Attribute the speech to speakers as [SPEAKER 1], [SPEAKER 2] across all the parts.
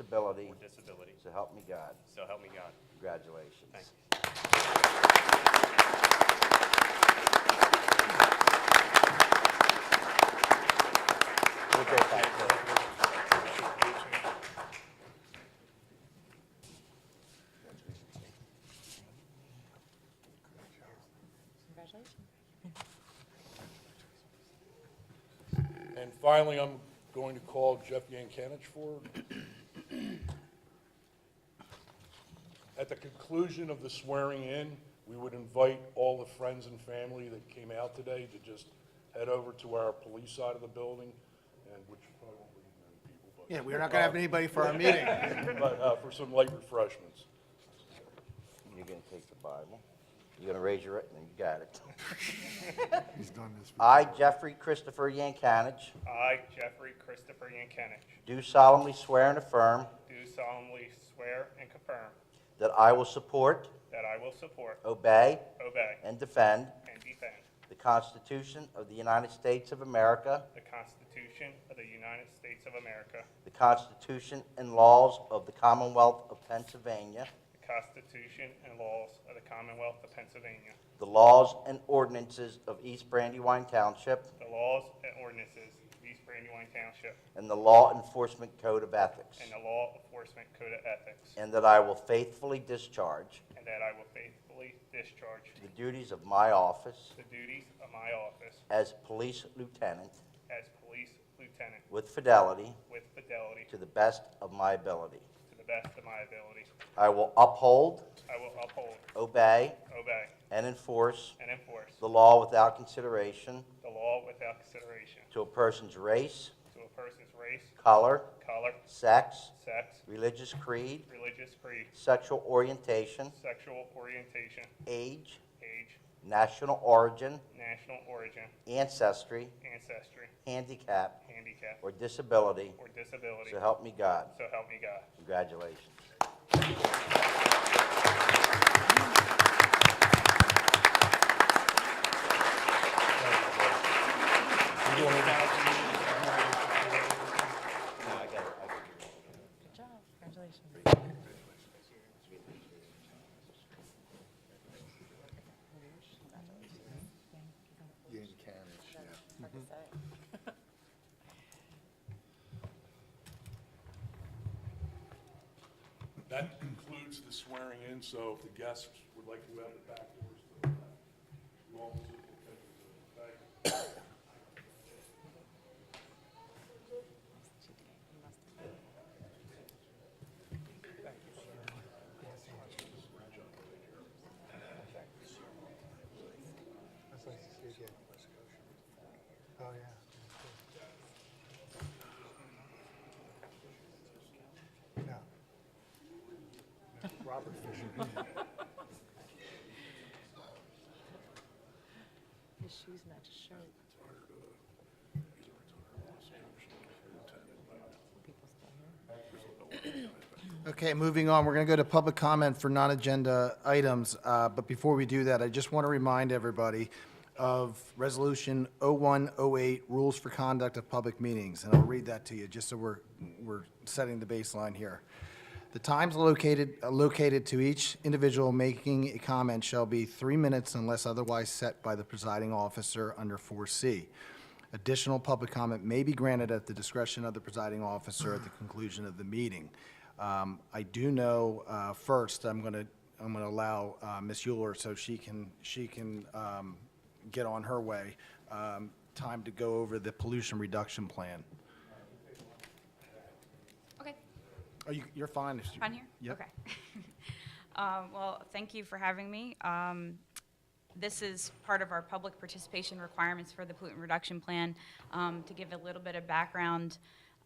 [SPEAKER 1] disability,
[SPEAKER 2] or disability.
[SPEAKER 1] so help me God.
[SPEAKER 2] So help me God.
[SPEAKER 1] Congratulations.
[SPEAKER 2] Thank you.
[SPEAKER 1] We'll take that, sir.
[SPEAKER 3] Congratulations.
[SPEAKER 4] And finally, I'm going to call Jeff Yankanich forward. At the conclusion of the swearing in, we would invite all the friends and family that came out today to just head over to our police side of the building, and which probably won't be many people, but.
[SPEAKER 5] Yeah, we're not going to have anybody for our meeting.
[SPEAKER 4] But, uh, for some light refreshments.
[SPEAKER 1] You're gonna take the Bible. You're gonna raise your right, and you got it.
[SPEAKER 6] He's done this.
[SPEAKER 1] I, Jeffrey Christopher Yankanich,
[SPEAKER 2] I, Jeffrey Christopher Yankenich,
[SPEAKER 1] do solemnly swear and affirm
[SPEAKER 2] do solemnly swear and confirm
[SPEAKER 1] that I will support,
[SPEAKER 2] that I will support,
[SPEAKER 1] obey,
[SPEAKER 2] obey,
[SPEAKER 1] and defend
[SPEAKER 2] and defend
[SPEAKER 1] the Constitution of the United States of America,
[SPEAKER 2] the Constitution of the United States of America,
[SPEAKER 1] the Constitution and laws of the Commonwealth of Pennsylvania,
[SPEAKER 2] the Constitution and laws of the Commonwealth of Pennsylvania,
[SPEAKER 1] the laws and ordinances of East Brandywine Township,
[SPEAKER 2] the laws and ordinances of East Brandywine Township,
[SPEAKER 1] and the Law Enforcement Code of Ethics,
[SPEAKER 2] and the Law Enforcement Code of Ethics,
[SPEAKER 1] and that I will faithfully discharge
[SPEAKER 2] and that I will faithfully discharge
[SPEAKER 1] the duties of my office
[SPEAKER 2] the duties of my office
[SPEAKER 1] as police lieutenant
[SPEAKER 2] as Police Lieutenant
[SPEAKER 1] with fidelity
[SPEAKER 2] with fidelity
[SPEAKER 1] to the best of my ability.
[SPEAKER 2] to the best of my ability.
[SPEAKER 1] I will uphold,
[SPEAKER 2] I will uphold,
[SPEAKER 1] obey,
[SPEAKER 2] obey,
[SPEAKER 1] and enforce
[SPEAKER 2] and enforce
[SPEAKER 1] the law without consideration
[SPEAKER 2] the law without consideration
[SPEAKER 1] to a person's race,
[SPEAKER 2] to a person's race,
[SPEAKER 1] color,
[SPEAKER 2] color,
[SPEAKER 1] sex,
[SPEAKER 2] sex,
[SPEAKER 1] religious creed,
[SPEAKER 2] religious creed,
[SPEAKER 1] sexual orientation,
[SPEAKER 2] sexual orientation,
[SPEAKER 1] age,
[SPEAKER 2] age,
[SPEAKER 1] national origin,
[SPEAKER 2] national origin,
[SPEAKER 1] ancestry,
[SPEAKER 2] ancestry,
[SPEAKER 1] handicap,
[SPEAKER 2] handicap,
[SPEAKER 1] or disability,
[SPEAKER 2] or disability.
[SPEAKER 1] so help me God.
[SPEAKER 2] So help me God.
[SPEAKER 1] Congratulations.
[SPEAKER 3] Good job. Congratulations. Hard to say.
[SPEAKER 4] That concludes the swearing in, so if the guests would like to go out the back doors to the left. you all will take the back.
[SPEAKER 6] That's nice to see again. Oh, yeah. Yeah. Robert Fisher.
[SPEAKER 3] His shoes match his shirt. People still here.
[SPEAKER 5] Okay, moving on, we're going to go to public comment for non-agenda items. Uh, But before we do that, I just want to remind everybody of Resolution 0108, Rules for Conduct of Public Meetings. And I'll read that to you, just so we're, we're setting the baseline here. The times located, uh, located to each individual making a comment shall be three minutes unless otherwise set by the presiding officer under 4C. Additional public comment may be granted at the discretion of the presiding officer at the conclusion of the meeting. Um, I do know, uh, first, I'm going to, I'm going to allow uh, Ms. Euler, so she can, she can um, get on her way, um, time to go over the pollution reduction plan.
[SPEAKER 7] Okay,
[SPEAKER 5] Are you, you're fine? if you-
[SPEAKER 7] on here?
[SPEAKER 5] Yep.
[SPEAKER 7] Okay. Um, Well, thank you for having me. Um, This is part of our public participation requirements for the pollutant reduction plan. Um, To give a little bit of background,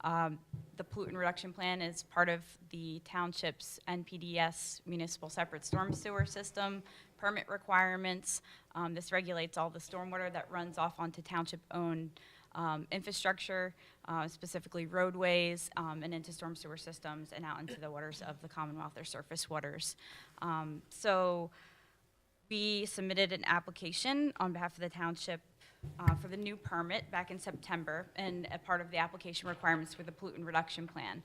[SPEAKER 7] um, the pollutant reduction plan is part of the township's NPDS E municipal separate storm sewer system permit requirements. Um, This regulates all the stormwater that runs off onto township-owned um, infrastructure, uh, specifically roadways, um, and into storm sewer systems and out into the waters of the Commonwealth or surface waters. Um, So we submitted an application on behalf of the township uh, for the new permit back in September, and a part of the application requirements were the pollutant reduction plan.